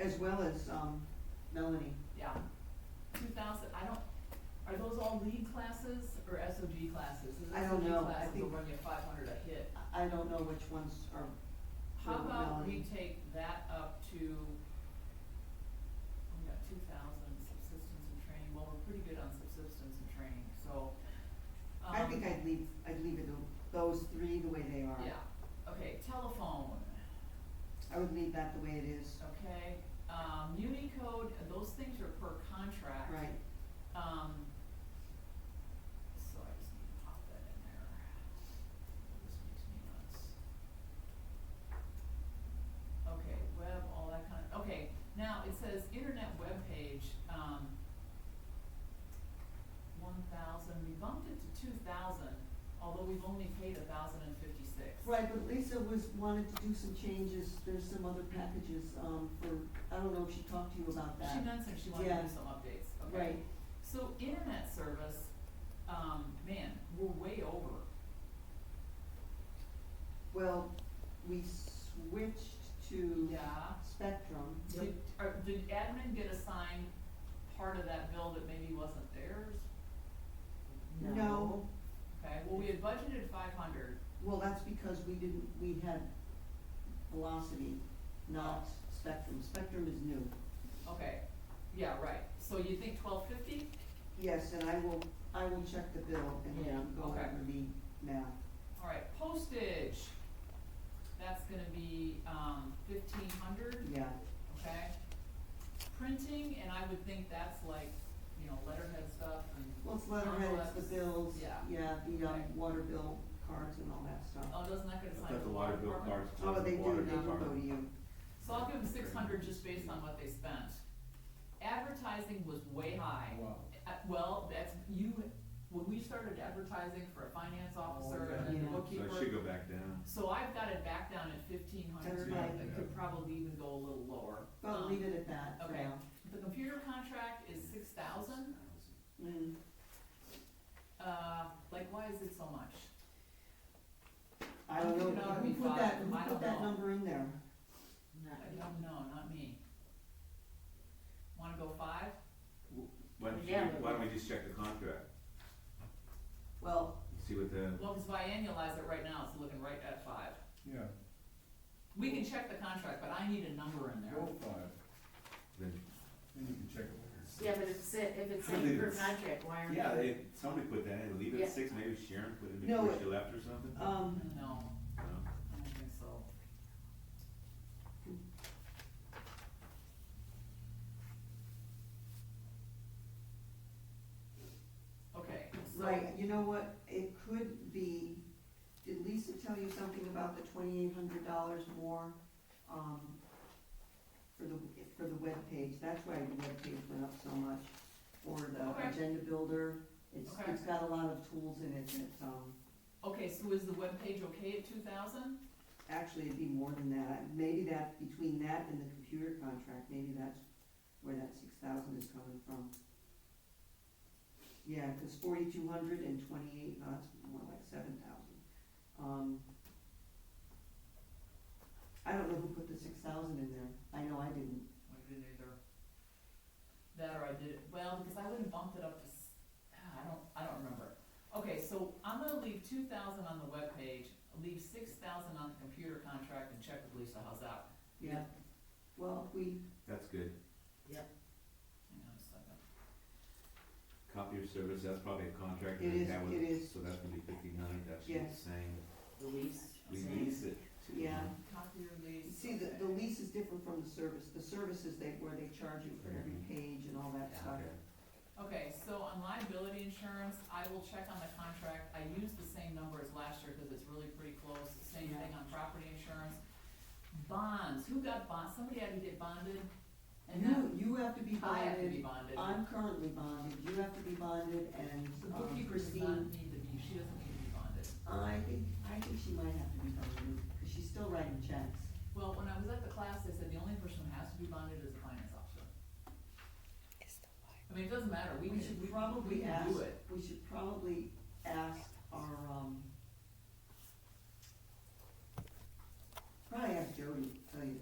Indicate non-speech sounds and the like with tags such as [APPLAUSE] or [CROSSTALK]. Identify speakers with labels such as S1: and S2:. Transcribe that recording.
S1: as well as, um, Melanie.
S2: Yeah, two thousand, I don't, are those all lead classes or SOG classes? Is
S1: I don't
S2: SOG
S1: know. I
S2: Classes will
S1: think-
S2: run you five hundred a hit.
S1: I- I don't know which ones are.
S2: How
S1: were
S2: about we
S1: Melanie.
S2: take that up to, we got two thousand subsistence and training, well, we're pretty good on subsistence and training, so.
S1: I think
S2: um,
S1: I'd leave, I'd leave it, the- those three the way they are.
S2: Yeah, okay, telephone,
S1: I would leave that the way it is,
S2: okay, um, Unicode, those things are per contract.
S1: right,
S2: Um, so I just need to pop that in there. This makes me nuts. Okay, web, all that kind of, okay, now it says internet webpage, um, one thousand, we bumped it to two thousand, although we've only paid a thousand and fifty-six.
S1: right, but Lisa was, wanted to do some changes, there's some other packages, um, for, I don't know if she talked to you about that.
S2: She mentioned she wanted to
S1: Yeah.
S2: do some updates, okay?
S1: Right,
S2: So internet service, um, man, we're way over.
S1: well, we switched to
S2: Yeah.
S1: Spectrum.
S2: Did, or did admin get assigned part of that bill that maybe wasn't theirs?
S1: No,
S2: Okay, well, we had budgeted five hundred,
S1: well, that's because we didn't, we had Velocity, not Spectrum, Spectrum is new.
S2: okay, yeah, right, so you think twelve fifty?
S1: Yes, and I will, I will check the bill and
S2: Yeah,
S1: then go over
S2: okay.
S1: the math.
S2: All right, postage, that's gonna be, um, fifteen hundred,
S1: Yeah,
S2: okay? Printing, and I would think that's like, you know, letterhead stuff and.
S1: well, it's letterhead, it's
S2: envelopes.
S1: the bills,
S2: Yeah.
S1: yeah, the, um,
S2: Okay.
S1: water bill cards and all that stuff.
S2: Oh, doesn't that get
S3: I
S2: assigned to
S3: thought
S2: the
S3: the
S2: water
S3: water bill
S2: department?
S3: cards.
S1: Oh, they do,
S3: water
S1: they do go
S3: department.
S1: to you,
S2: So I'll give them six hundred just based on what they spent. Advertising was way high.
S4: Wow.
S2: Uh, well, that's, you, when we started advertising for a finance
S5: Oh,
S2: officer
S4: yeah.
S2: and then
S1: Yeah.
S2: the bookkeeper.
S3: So it should go back down.
S2: So I've got it back down at fifteen hundred,
S1: That's right.
S2: it could probably even go a little lower.
S1: but
S2: Um,
S1: leave it at that for
S2: okay.
S1: now.
S2: The computer contract is six thousand,
S1: Mm.
S2: uh, like, why is it so much?
S1: I don't
S2: It
S1: know,
S2: ought to
S1: who
S2: be
S1: put that,
S2: five.
S1: who
S2: I
S1: put
S2: don't
S1: that
S2: know.
S1: number in there?
S2: I don't know, not me. Wanna go five?
S3: Why don't you,
S1: Yeah.
S3: why don't we just check the contract,
S1: Well,
S3: see what the,
S2: Well, cause if I annualize it right now, it's looking right at five.
S4: Yeah,
S2: We can check the contract, but I need a number in there.
S4: go five,
S3: then-
S4: then you can check it
S5: Yeah, but if it's, if
S3: [LAUGHS]
S5: it's saying per contract, why aren't we?
S3: yeah, they, somebody put that in, leave it
S5: Yeah.
S3: at six, maybe Sharon put it in
S1: No,
S3: before
S1: it-
S3: she left or something?
S1: um,
S2: No,
S3: No?
S2: I don't think so. Okay, so.
S1: right, you know what, it could be, did Lisa tell you something about the twenty-eight hundred dollars more, um, for the, for the webpage, that's why the webpage went up so much, or
S2: Okay.
S1: the agenda builder, it's,
S2: Okay.
S1: it's got a lot of tools in it that, um,
S2: Okay, so is the webpage okay at two thousand?
S1: actually it'd be more than that, maybe that, between that and the computer contract, maybe that's where that six thousand is coming from. Yeah, cause forty-two hundred and twenty-eight, no, that's more like seven thousand, um. I don't know who put the six thousand in there, I know I didn't,
S2: I didn't either. That or I did, it well, because I wouldn't bumped it up to, s- ah, I don't, I don't remember. Okay, so I'm gonna leave two thousand on the webpage, leave six thousand on the computer contract and check with Lisa, how's that?
S1: yeah, well, we,
S3: That's good,
S2: Hang on a second.
S3: copy of service, that's probably a contract
S1: It
S3: that we
S1: is-
S3: have
S1: it
S3: with,
S1: is.
S3: so that's gonna be fifteen hundred, that's what
S1: Yes.
S3: it's saying,
S5: Release.
S3: we
S5: saying-
S3: lease it to.
S1: Yeah.
S2: Copy your lease.
S1: See, the, the lease is different from the service, the services they, where they charge you for every
S3: Mhm.
S1: page and all that
S2: Mm-hmm. Yeah.
S1: stuff.
S3: Okay,
S2: Okay, so on liability insurance, I will check on the contract, I used the same number as last year, cause it's really pretty close, same
S1: Yeah.
S2: thing on property insurance. Bonds, who got bonds, somebody had to get bonded, and
S1: You,
S2: then
S1: you have to be
S2: I have to be
S1: bonded,
S2: bonded.
S1: I'm currently bonded, you have to be bonded, and
S2: The
S1: um,
S2: bookkeeper does not
S1: Christine,
S2: need to be, she doesn't need to be bonded.
S1: I think, I think she might have to be bonded, because she's still writing checks.
S2: Well, when I was at the class, they said the only person who has to be bonded is the finance officer. I mean, it doesn't matter, we
S1: We
S2: can,
S1: should
S2: we can, we
S1: probably
S2: can do
S1: ask-
S2: it.
S1: We should probably ask our, um, probably ask Jody,